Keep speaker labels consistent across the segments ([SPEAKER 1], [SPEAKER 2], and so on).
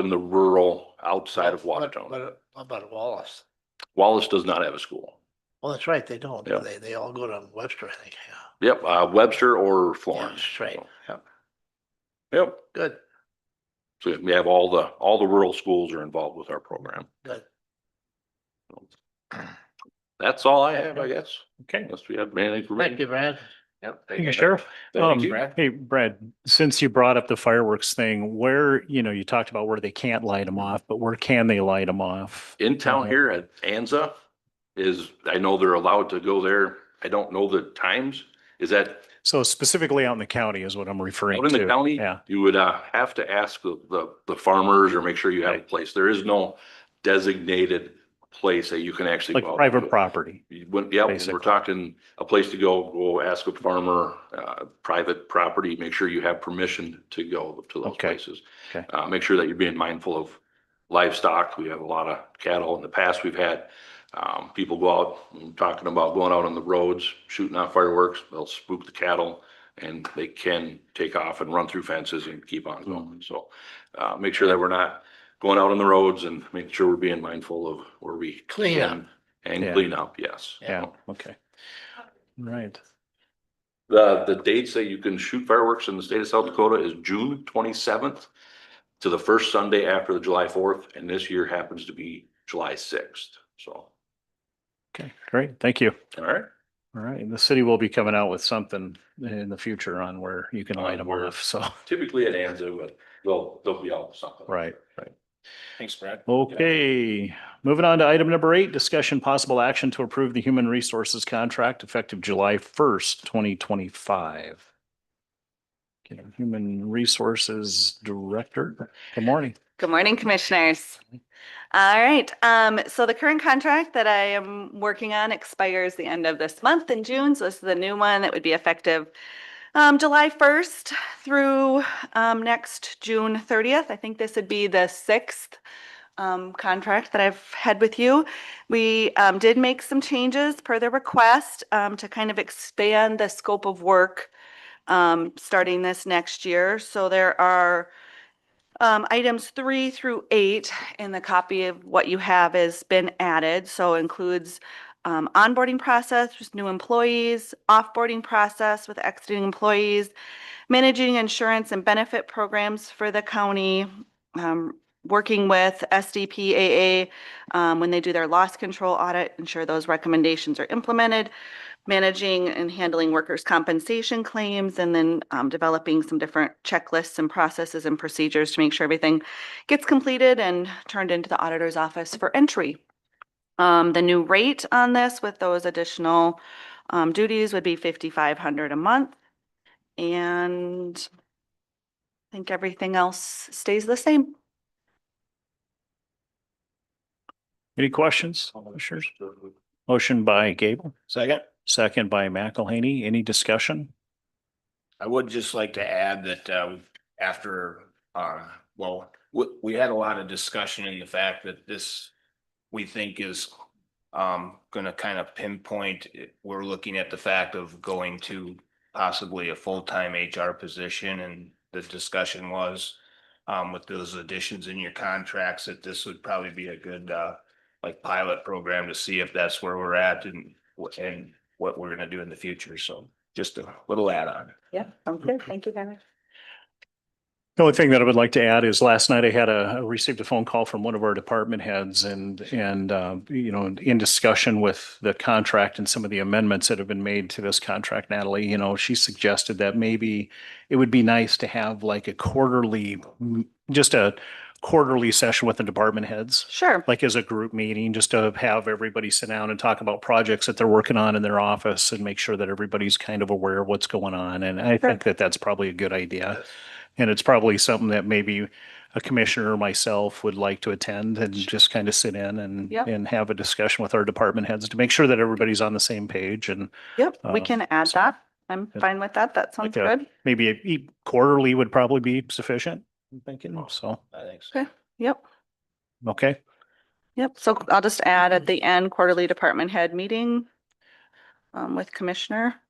[SPEAKER 1] in the rural outside of
[SPEAKER 2] But-
[SPEAKER 1] Watertown.
[SPEAKER 2] But, how about Wallace.
[SPEAKER 1] Wallace does not have a school.
[SPEAKER 2] Well, that's right, they don't.
[SPEAKER 1] Yeah.
[SPEAKER 2] They, they all go to Webster, I think, yeah.
[SPEAKER 1] Yep, uh, Webster or
[SPEAKER 2] Yeah,
[SPEAKER 1] Florence.
[SPEAKER 2] that's right. Yep,
[SPEAKER 1] Yep.
[SPEAKER 2] good,
[SPEAKER 1] So we have all the, all the rural schools are involved with our program.
[SPEAKER 2] good.
[SPEAKER 1] That's all I have, I guess.
[SPEAKER 3] Okay.
[SPEAKER 1] Unless we have anything for
[SPEAKER 2] Thank
[SPEAKER 1] me.
[SPEAKER 2] you, Brad.
[SPEAKER 1] Yep.
[SPEAKER 3] Thank you, Sheriff.
[SPEAKER 1] Thank
[SPEAKER 3] Um,
[SPEAKER 1] you.
[SPEAKER 3] Hey, Brad, since you brought up the fireworks thing, where, you know, you talked about where they can't light them off, but where can they light them off?
[SPEAKER 1] In town here at Anza is, I know they're allowed to go there. I don't know the times. Is that
[SPEAKER 3] So specifically out in the county is what I'm referring
[SPEAKER 1] out
[SPEAKER 3] to.
[SPEAKER 1] in the county?
[SPEAKER 3] Yeah.
[SPEAKER 1] You would uh, have to ask the, the, the farmers or make sure you have a place. There is no designated place that you can actually.
[SPEAKER 3] Like
[SPEAKER 1] go out and do
[SPEAKER 3] private
[SPEAKER 1] it.
[SPEAKER 3] property.
[SPEAKER 1] You wouldn't, yeah, we're
[SPEAKER 3] Basically.
[SPEAKER 1] talking a place to go, go ask a farmer, uh, private property, make sure you have permission to go to those
[SPEAKER 3] Okay.
[SPEAKER 1] places.
[SPEAKER 3] Okay.
[SPEAKER 1] Uh, make sure that you're being mindful of livestock. We have a lot of cattle. In the past, we've had, um, people go out, and talking about going out on the roads, shooting off fireworks, they'll spook the cattle. And they can take off and run through fences and keep on going. So, uh, make sure that we're not going out on the roads and making sure we're being mindful of where we.
[SPEAKER 2] Clean up.
[SPEAKER 1] can And
[SPEAKER 3] Yeah.
[SPEAKER 1] clean up, yes.
[SPEAKER 3] Yeah. Okay. Right.
[SPEAKER 1] The, the dates that you can shoot fireworks in the state of South Dakota is June twenty-seventh to the first Sunday after the July fourth, and this year happens to be July sixth, so,
[SPEAKER 3] Okay, great. Thank you.
[SPEAKER 1] all right.
[SPEAKER 3] All right. And the city will be coming out with something in the future on where you can
[SPEAKER 1] On
[SPEAKER 3] light them
[SPEAKER 1] where-
[SPEAKER 3] off. So,
[SPEAKER 1] Typically it ends, but they'll, they'll be out something.
[SPEAKER 3] right.
[SPEAKER 4] Thanks, Brad.
[SPEAKER 3] Okay, moving on to item number eight, discussion possible action to approve the human resources contract effective July first, twenty twenty-five. Human Resources Director, good morning.
[SPEAKER 5] Good morning, Commissioners. All right, um, so the current contract that I am working on expires the end of this month in June, so this is the new one that would be effective um, July first through, um, next June thirtieth. I think this would be the sixth um, contract that I've had with you. We, um, did make some changes per the request, um, to kind of expand the scope of work, um, starting this next year. So there are um, items three through eight in the copy of what you have has been added, so includes um, onboarding process with new employees, offboarding process with exiting employees, managing insurance and benefit programs for the county, um, working with SDPAA um, when they do their loss control audit, ensure those recommendations are implemented, managing and handling workers' compensation claims, and then um, developing some different checklists and processes and procedures to make sure everything gets completed and turned into the auditor's office for entry. Um, The new rate on this with those additional um, duties would be fifty-five hundred a month. And I think everything else stays the same.
[SPEAKER 3] Any questions? Commissioners? Motion by Gable,
[SPEAKER 4] Second,
[SPEAKER 3] second by McElhaney. Any discussion?
[SPEAKER 4] I would just like to add that uh, after, uh, well, we, we had a lot of discussion in the fact that this we think is um, gonna kind of pinpoint, it. we're looking at the fact of going to possibly a full-time HR position and the discussion was um, with those additions in your contracts, that this would probably be a good uh, like pilot program to see if that's where we're at and what, and what we're gonna do in the future. So just a little add-on.
[SPEAKER 5] Yeah, sounds good. Thank you, Tyler.
[SPEAKER 3] The only thing that I would like to add is last night I had a, I received a phone call from one of our department heads and, and, uh, you know, in discussion with the contract and some of the amendments that have been made to this contract, Natalie, you know, she suggested that maybe it would be nice to have like a quarterly, just a quarterly session with the department heads
[SPEAKER 5] Sure.
[SPEAKER 3] like as a group meeting, just to have everybody sit down and talk about projects that they're working on in their office and make sure that everybody's kind of aware of what's going on. And I think that that's probably a good idea. And it's probably something that maybe a commissioner or myself would like to attend and just kind of sit in and,
[SPEAKER 5] Yep.
[SPEAKER 3] and have a discussion with our department heads to make sure that everybody's on the same page and
[SPEAKER 5] Yep, we
[SPEAKER 3] Uh,
[SPEAKER 5] can add
[SPEAKER 3] so-
[SPEAKER 5] that. I'm
[SPEAKER 3] Yeah.
[SPEAKER 5] fine with that. That sounds
[SPEAKER 3] Like a-
[SPEAKER 5] good.
[SPEAKER 3] maybe e- quarterly would probably be sufficient, I'm thinking, so,
[SPEAKER 4] I think so.
[SPEAKER 5] Okay. Yep,
[SPEAKER 3] okay.
[SPEAKER 5] yep. So I'll just add at the end quarterly department head meeting um, with commissioner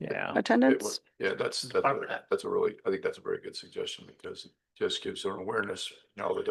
[SPEAKER 3] Yeah.
[SPEAKER 6] It
[SPEAKER 5] attendance.
[SPEAKER 6] was- Yeah, that's, that's, a- that's a really, I think that's a very good suggestion because it just gives an awareness, now that